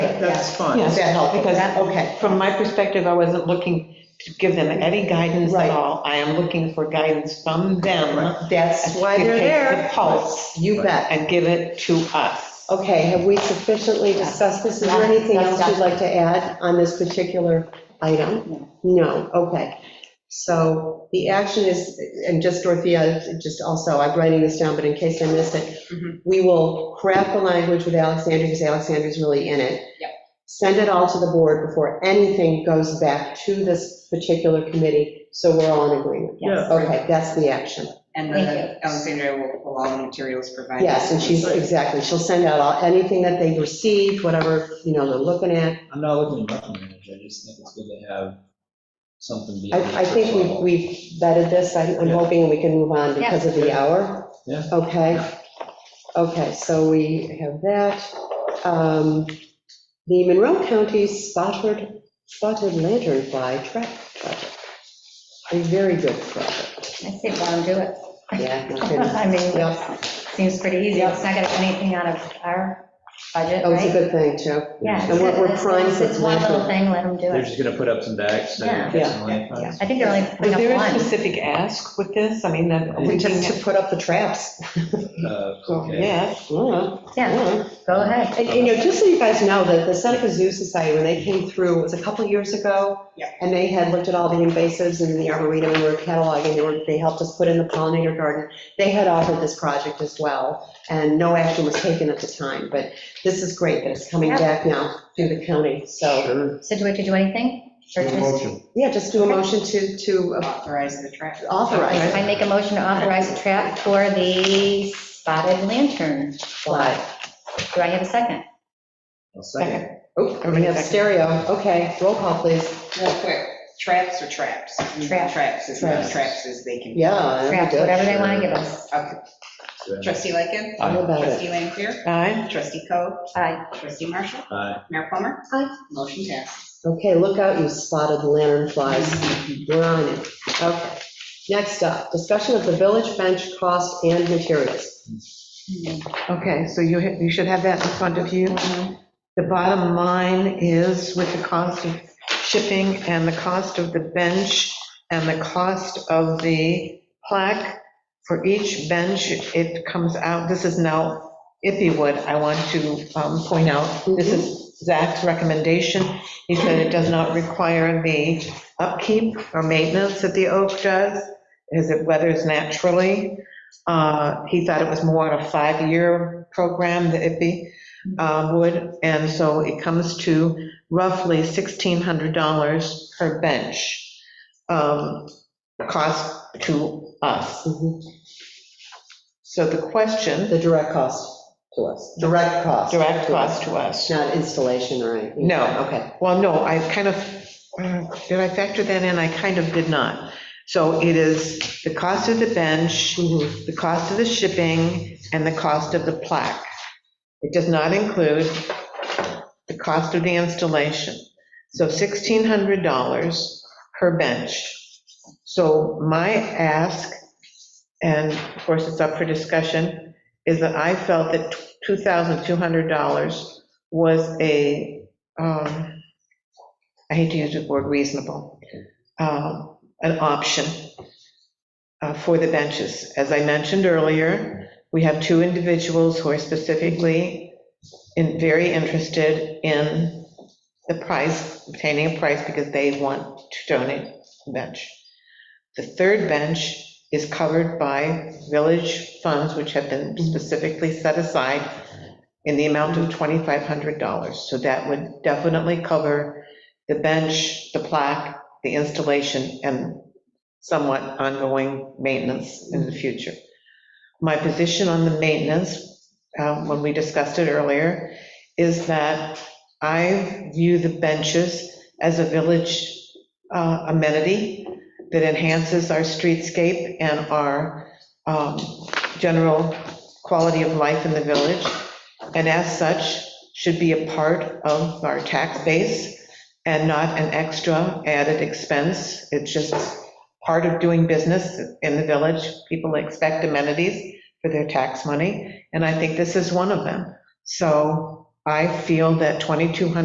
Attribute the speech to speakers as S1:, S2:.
S1: that's fine.
S2: Yes.
S3: Is that helpful?
S2: Because-
S3: Okay.
S2: From my perspective, I wasn't looking to give them any guidance
S3: Right.
S2: at all. I am looking for guidance from them.
S3: That's why
S2: to
S3: they're
S2: take
S3: there.
S2: The pulse
S3: You bet.
S2: and give it to us.
S3: Okay, have we sufficiently discussed this? Is there anything else you'd like to add on this particular item? No, okay. So the action is, and just Dorothea, just also, I'm writing this down, but in case I missed
S2: Mm-hmm.
S3: it, we will craft the language with Alexander, because Alexander's really in it.
S4: Yep.
S3: Send it all to the board before anything goes back to this particular committee, so we're all in agreement.
S1: Yeah.
S3: Okay, that's the action.
S4: And
S5: Thank
S4: the Alexandria will, will all the materials provided.
S3: Yes, and she's, exactly, she'll send out all, anything that they received, whatever, you know, they're looking at.
S6: I'm not looking to micromanage, I just think it's good to have something. beyond the
S3: I, I think
S6: first
S3: we've,
S6: level.
S3: we've vetted this, I'm, I'm hoping we can move on because of the hour.
S6: Yeah.
S3: Okay, okay, so we have that. Um, The Monroe County Spotted, Spotted Lanternfly Track Project, a very good project,
S5: I say, let them do it.
S3: yeah. no kidding.
S5: I mean,
S3: Yeah,
S5: seems pretty easy. It's not going to be anything out of our budget,
S3: that was Oh, a
S5: right?
S3: good thing, too.
S5: Yeah.
S3: And we're- we're
S5: it's-
S3: primed
S5: it's-
S3: for
S5: It's one little
S3: planting.
S5: thing, let them do
S6: They're
S5: it.
S6: just gonna put up some bags, so
S5: Yeah.
S6: get some light posts.
S5: I think they're only
S2: Was
S5: putting
S2: there
S5: up
S2: a
S5: one.
S2: specific ask with this? I mean, that we
S3: We
S2: can,
S3: just to put up the traps.
S6: Uh, okay.
S3: Yeah,
S2: yeah,
S5: Yeah,
S3: yeah.
S5: go ahead.
S3: And, you know, just so you guys know, that the Seneca Zoo Society, when they came through, it was a couple years ago.
S4: Yeah.
S3: And they had looked at all the invasives in the arboretum, and we were cataloging, they were, they helped us put in the pollinator garden. They had offered this project as well, and no action was taken at the time, but this is great that it's coming back now through the county, so.
S6: Sure.
S5: So do we have to do anything? Or just,
S7: Motion.
S3: Yeah, just do a motion to, to
S4: Authorize the trash.
S3: authorize.
S5: I make a motion to authorize a trap for the spotted lantern.
S3: Fly.
S5: Do I have a second?
S6: I'll second.
S3: Oh, we have stereo, okay, roll call, please.
S4: Real quick, traps or traps?
S5: Trap.
S4: Traps, as many
S6: Traps.
S4: traps as they can.
S3: Yeah. that'd be
S5: Trap,
S3: good.
S5: whatever they want to give us.
S4: Okay. Trustee Lightgev.
S3: How about it?
S4: Trustee Lanfair.
S2: aye.
S4: Trustee Coe.
S5: Aye.
S4: Trustee Marshall.
S6: Aye.
S4: Mayor Plummer.
S3: Aye.
S4: Motion passes.
S3: Okay, look out, you spotted lantern flies. We're on it. Okay. Next up, discussion of the village bench cost and materials.
S2: Okay, so you, ha- you should have that in front of you. The bottom line is with the cost of shipping and the cost of the bench and the cost of the plaque, for each bench, it comes out, this is now Ippywood, I want to um, point out, this is Zach's recommendation. He said it does not require the upkeep or maintenance that the oak does, as it weathers naturally. Uh, He thought it was more of a five-year program, the IPI uh, would, and so it comes to roughly $1,600 per bench um, cost to us.
S3: Mhm.
S2: So the question,
S3: The direct cost to us. Direct cost.
S2: direct cost to us.
S3: Not installation or anything.
S2: No.
S3: Okay.
S2: Well, no, I kind of, uh, did I factor that in? I kind of did not. So it is the cost of the bench,
S3: Mhm.
S2: the cost of the shipping, and the cost of the plaque. It does not include the cost of the installation. So $1,600 per bench. So my ask, and of course it's up for discussion, is that I felt that $2,200 was a, um, I hate to use the word reasonable, um, an option uh, for the benches. As I mentioned earlier, we have two individuals who are specifically in, very interested in the price, obtaining a price because they want to donate a bench. The third bench is covered by village funds which have been specifically set aside in the amount of $2,500. So that would definitely cover the bench, the plaque, the installation, and somewhat ongoing maintenance in the future. My position on the maintenance, uh, when we discussed it earlier, is that I view the benches as a village uh, amenity that enhances our streetscape and our um, general quality of life in the village, and as such, should be a part of our tax base and not an extra added expense. It's just part of doing business in the village. People expect amenities for their tax money, and I think this is one of them. So I feel that 2,200